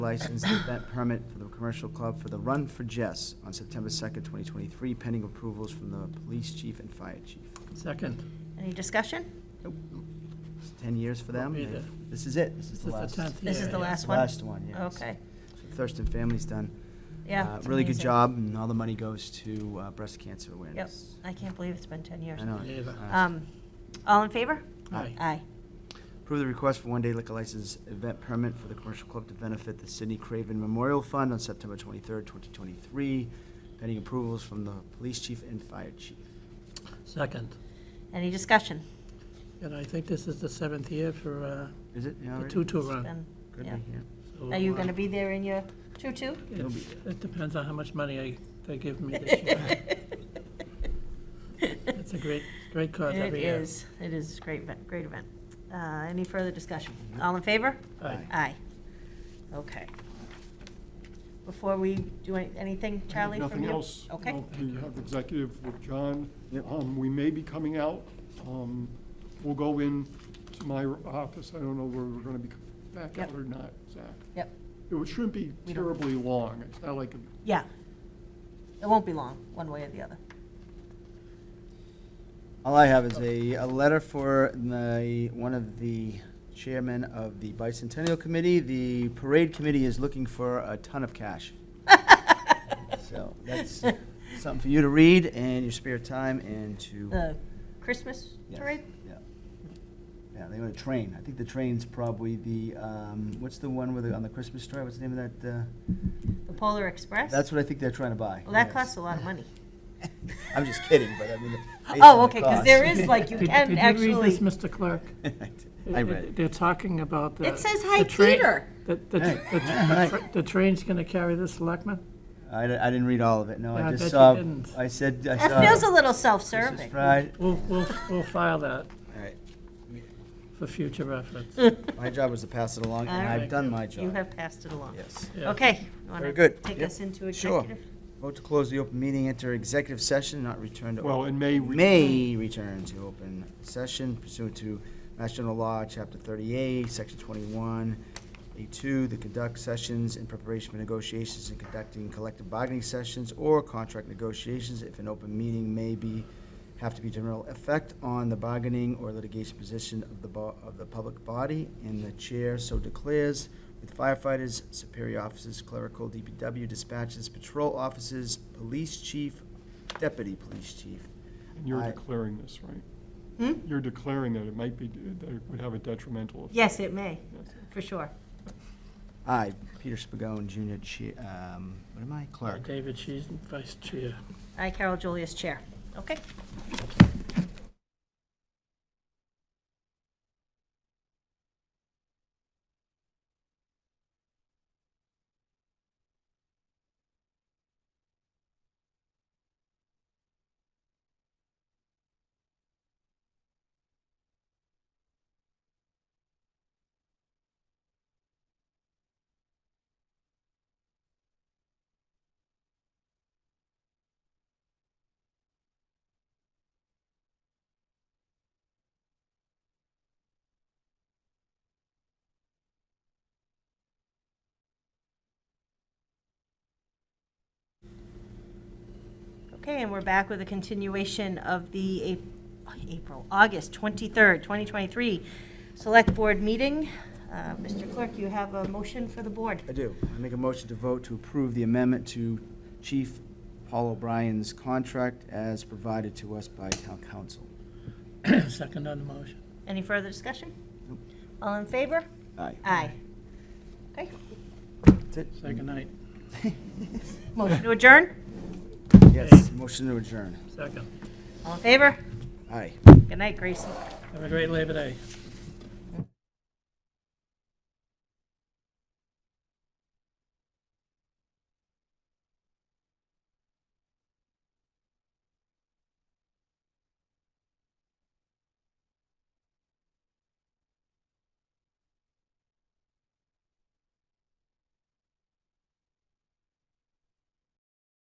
license the event permit for the commercial club for the Run for Jess on September 2nd, 2023, pending approvals from the police chief and fire chief. Second. Any discussion? It's 10 years for them. Won't be They've- there. This is it. This is This the is the last. tenth This year, is yeah. the last one? Last one, yes. Okay, So Thurston family's done. yeah. Uh, it's Really good amazing. job, and all the money goes to uh, breast cancer Yep, awareness. I can't believe it's been 10 years. I know. Yeah, but- Uh, Um, All in favor? Aye. Aye. Approve the request for one-day liquor license event permit for the commercial club to benefit the Sidney Craven Memorial Fund on September 23rd, 2023, pending approvals from the police chief and fire chief. Second. Any discussion? And I think this is the seventh year for uh, Is it? Yeah, the already? two-two It's run. been- Could be, yeah. yeah. So, Are you uh, going to be there in your tutu? You'll be it's- It depends on how much money I, they give me this year. It's a great, great cause It every year. is, it is a great, event- great event. Uh, Any further discussion? Mm-hmm. All in favor? Aye. Aye. Okay. Before we do any- anything, I have Charlie, from you? Nothing else. Okay. No, We have executive with John. Yep. Um, We may be coming out. Um, We'll go in to my office. I don't know where we're going to be back Yep. out or not, Zach. Yep, It shouldn't be We don't- terribly long. It's not like, a- yeah. It won't be long, one way or the other. All I have is a, a letter for the, one of the chairmen of the bicentennial committee. The parade committee is looking for a ton of cash. So that's something for you to read in your spare time and to. The Christmas Yeah, parade? Yeah. Yeah, they want a train. I think the train's probably the, um, what's the one with, the- on the Christmas story? What's the name of that? The Polar uh, Express? That's what I think they're trying to buy. Well, that yes. costs a lot of money. I'm just kidding, but I mean. based on Oh, the okay, because cost. there is, like, you Did- can Did you read this, actually, Mr. Clerk? I It- read it- it. They're talking about the. It says, the "Hi, train- Peter." The, the, Hey, the- hi. the, tra- the train's gonna carry the selectmen? I, di- I didn't read all of it, no, Yeah, I I bet just you saw, didn't. I said, I saw. that feels a little Christmas self-serving. Pride. We'll, we'll, we'll file that All right. for future reference. My job was to pass it along, and All I've right. done my You job. have passed it along. Yes. Yeah. Okay. you wanna Very good. Take Yep. us into Sure. executive? Vote to close the open meeting, enter executive session, not return to. well, open- in May. we- May return to open session pursuant to Mass General Law, Chapter 38, Section 21, A2, to conduct sessions in preparation for negotiations and conducting collective bargaining sessions or contract negotiations if an open meeting may be, have to be general effect on the bargaining or litigation position of the, bo- of the public body, and the chair so declares with firefighters, superior officers, clerical, DPW dispatches, patrol officers, police chief, deputy police chief, And you're I- declaring this, right? Hmm? You're declaring that it might be, that it would have a detrimental effect. Yes, it may, Yes. for sure. I, Peter Spagone, Junior, Chi- um, what am I, clerk? David She's vice chair. I, Carol Julius, Chair. Okay. Okay, and we're back with a continuation of the Ap- April, August 23rd, 2023 Select Board meeting. Uh, Mr. Clerk, you have a motion for the board. I do. I make a motion to vote to approve the amendment to Chief Paul O'Brien's contract as provided to us by town council. Second on the motion. Any further discussion? All in favor? Aye. Aye. Okay, That's it. Second night. motion to adjourn? Yes, motion to adjourn. Second. All in favor? Aye. Good night, Gracie. Have a great Labor Day.